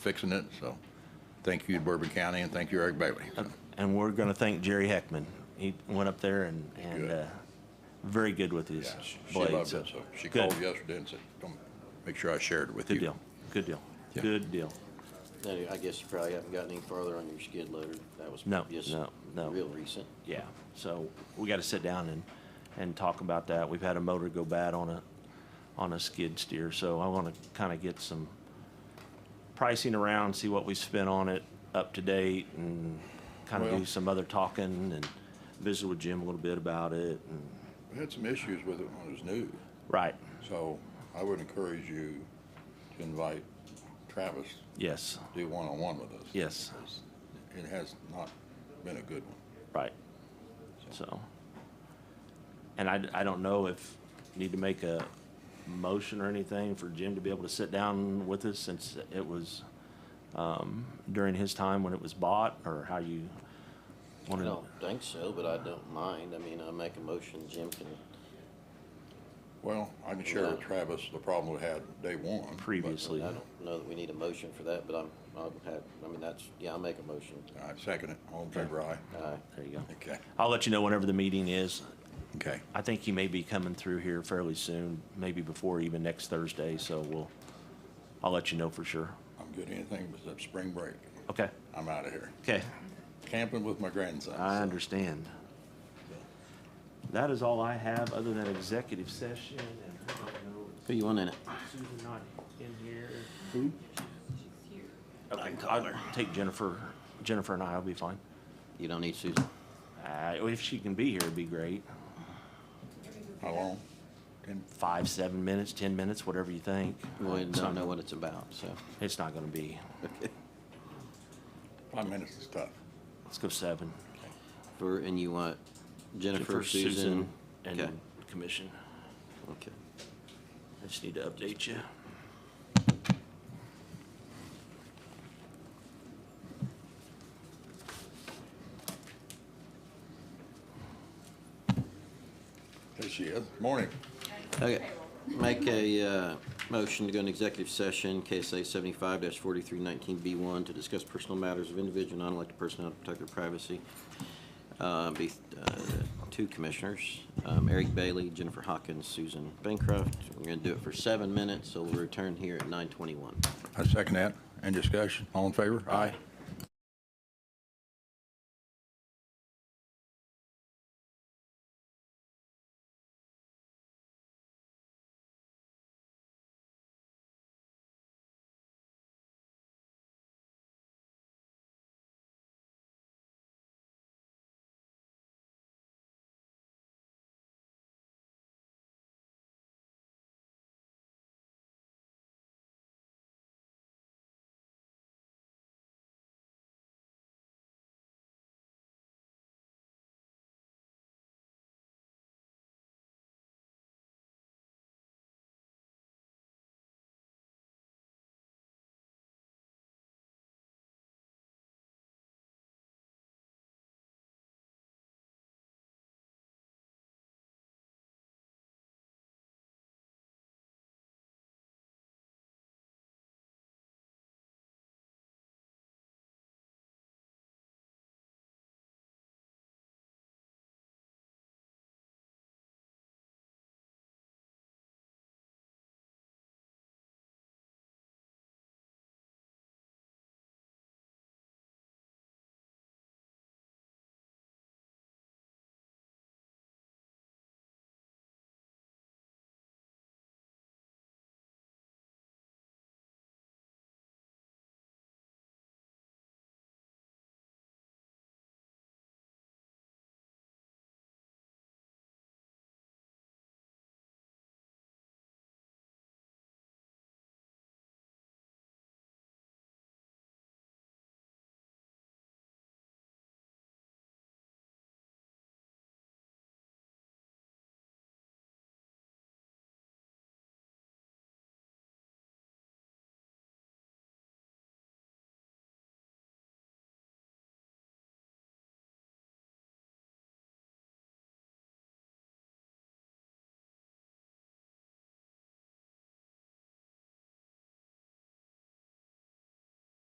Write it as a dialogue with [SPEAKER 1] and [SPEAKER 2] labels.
[SPEAKER 1] fixing it, so thank you to Bourbon County and thank you Eric Bailey.
[SPEAKER 2] Uh,
[SPEAKER 1] So,
[SPEAKER 2] And we're going to thank Jerry Heckman. He went up there and, and
[SPEAKER 1] Good.
[SPEAKER 2] uh, very good with his
[SPEAKER 1] yeah, She
[SPEAKER 2] blade.
[SPEAKER 1] loved it, so she
[SPEAKER 2] good.
[SPEAKER 1] called yesterday and said, "Come, make sure I shared it with you.
[SPEAKER 2] Good deal. Good deal.
[SPEAKER 1] Yeah.
[SPEAKER 2] Good deal.
[SPEAKER 3] Then I guess you probably haven't gotten any farther on your skid loader. That was
[SPEAKER 2] No,
[SPEAKER 3] just
[SPEAKER 2] no, no.
[SPEAKER 3] real recent.
[SPEAKER 2] Yeah. So we got to sit down and, and talk about that. We've had a motor go bad on a, on a skid steer. So I want to kind of get some pricing around, see what we spent on it up to date and kind of
[SPEAKER 1] Well-
[SPEAKER 2] do some other talking and visit with Jim a little bit about it. And,
[SPEAKER 1] We had some issues with it when it was new,
[SPEAKER 2] right.
[SPEAKER 1] so I would encourage you to invite Travis
[SPEAKER 2] Yes.
[SPEAKER 1] to do one-on-one with us.
[SPEAKER 2] Yes.
[SPEAKER 1] It has not been a good one.
[SPEAKER 2] Right. So, and I, I don't know if need to make a motion or anything for Jim to be able to sit down with us since it was, um, during his time when it was bought or how you
[SPEAKER 3] I
[SPEAKER 2] wanted.
[SPEAKER 3] don't think so, but I don't mind. I mean, I make a motion, Jim can,
[SPEAKER 1] Well, I can share with
[SPEAKER 3] Yeah.
[SPEAKER 1] Travis the problem we had day one. but-
[SPEAKER 2] Previously.
[SPEAKER 3] I don't know that we need a motion for that, but I'm, I'll have, I mean, that's, yeah, I'll make a motion. Uh,
[SPEAKER 1] All right, second it. All in favor, aye.
[SPEAKER 3] Aye.
[SPEAKER 2] There you go.
[SPEAKER 1] Okay,
[SPEAKER 2] I'll let you know whenever the meeting is.
[SPEAKER 1] okay.
[SPEAKER 2] I think he may be coming through here fairly soon, maybe before even next Thursday, so we'll, I'll let you know for sure.
[SPEAKER 1] I'm good, anything except spring break.
[SPEAKER 2] Okay,
[SPEAKER 1] I'm out of here.
[SPEAKER 2] okay.
[SPEAKER 1] Camping with my grandson.
[SPEAKER 2] I
[SPEAKER 1] so-
[SPEAKER 2] understand. That is all I have, other than executive session and I don't know
[SPEAKER 3] Who you want in it?
[SPEAKER 2] if Susan not in here. Okay, I'll take Jennifer, Jennifer and I, I'll be fine.
[SPEAKER 3] You don't need Susan.
[SPEAKER 2] Uh, if she can be here, it'd be great.
[SPEAKER 1] How long? Ten,
[SPEAKER 2] Five, seven minutes, ten minutes, whatever you think.
[SPEAKER 3] We
[SPEAKER 2] It's
[SPEAKER 3] don't
[SPEAKER 2] not-
[SPEAKER 3] know what it's about, so.
[SPEAKER 2] It's not gonna be.
[SPEAKER 1] five minutes is tough.
[SPEAKER 2] Let's go seven.
[SPEAKER 3] For, and you want Jennifer, Susan? Okay,
[SPEAKER 2] And commission.
[SPEAKER 3] okay.
[SPEAKER 2] I just need to update you.
[SPEAKER 1] There she is. Morning.
[SPEAKER 3] Okay, make a, uh, motion to go into executive session, KSA seventy-five forty-three nineteen B one, to discuss personal matters of individual non-elected personnel to protect their privacy. Uh, be, uh, two commissioners, um, Eric Bailey, Jennifer Hawkins, Susan Bancroft. We're gonna do it for seven minutes, so we'll return here at nine twenty-one.
[SPEAKER 1] I second that. Any discussion? All in favor? Aye.